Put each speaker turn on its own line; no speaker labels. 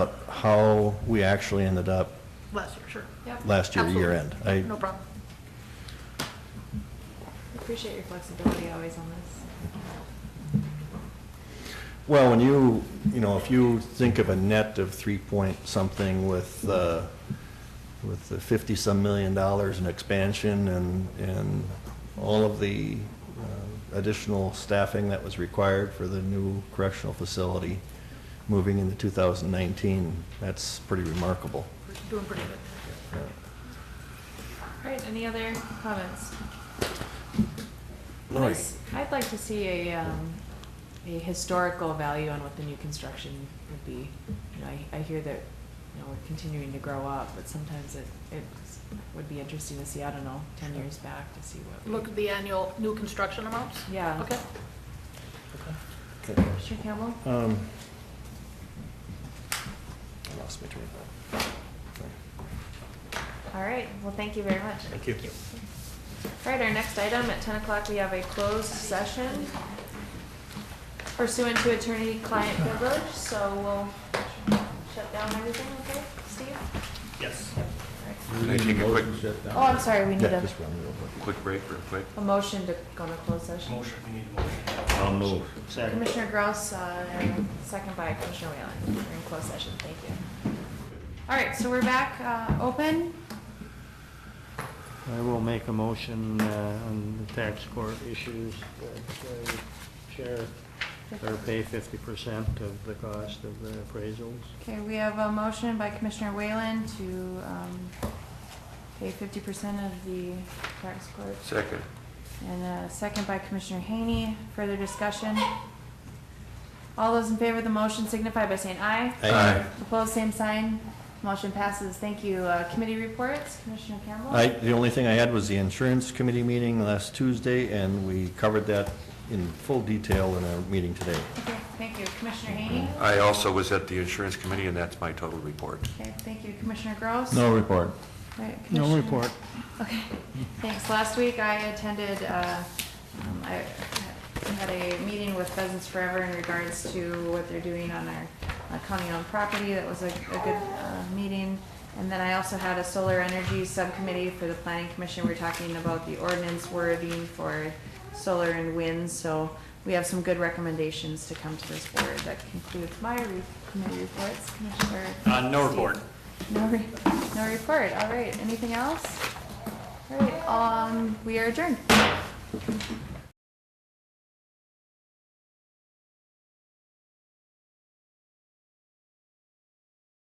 how we actually ended up
last year, sure.
Yep.
last year, year end.
Absolutely.
I,
No problem.
Appreciate your flexibility always on this.
Well, when you, you know, if you think of a net of three point something with, uh, with the fifty-some million dollars in expansion and, and all of the uh, additional staffing that was required for the new correctional facility moving into two thousand nineteen, that's pretty remarkable.
We're doing pretty good.
Yeah.
All right, any other comments?
Lori?
I'd- I'd like to see a, um, a historical value on what the new construction would be. You know, I, I hear that, you know, we're continuing to grow up, but sometimes it, it would be interesting to see, I don't know, ten years back to see what. we-
Look at the annual new construction amounts?
Yeah.
Okay.
Commissioner Campbell?
Um, I lost my train of thought. Sorry.
All right, well, thank you very much.
Thank you.
All right, our next item, at ten o'clock, we have a closed session pursuant to attorney-client privilege, so we'll shut down everything, okay, Steve?
Yes.
Can I take a quick,
Oh, I'm sorry, we need
Yeah,
a,
just run real quick.
quick break real quick?
a motion to go into closed session.
Motion, we need a motion.
I'll move.
Second.
Commissioner Grouse, uh, and second by Commissioner Whalen, we're in closed session, thank you. All right, so we're back, uh, open,
I will make a motion uh, on the tax court issues that uh, share or pay fifty percent of the cost of the appraisals.
okay, we have a motion by Commissioner Whalen to, um, pay fifty percent of the tax court
Second.
And a second by Commissioner Haney. Further discussion? All those in favor of the motion signify by saying aye.
Aye.
Opposed, same sign. Motion passes. Thank you. Uh, Committee reports, Commissioner Campbell?
I, the only thing I had was the insurance committee meeting last Tuesday, and we covered that in full detail in our meeting today.
Okay, thank you. Commissioner Haney?
I also was at the insurance committee, and that's my total report.
Okay, thank you. Commissioner Gross?
No report.
Right,
No
Commissioner-
report.
Okay, thanks. Last week I attended, uh, um, I had a meeting with Pheasants Forever in regards to what they're doing on our uh, county-owned property. That was a, a good, uh, meeting. And then I also had a solar energy subcommittee for the planning commission. We're talking about the ordinance wording for solar and wind, so we have some good recommendations to come to this board. That concludes my re- committee reports, Commissioner.
Uh, no
Steve.
report.
No, re- no report, all right, anything else? All right, um, we are adjourned.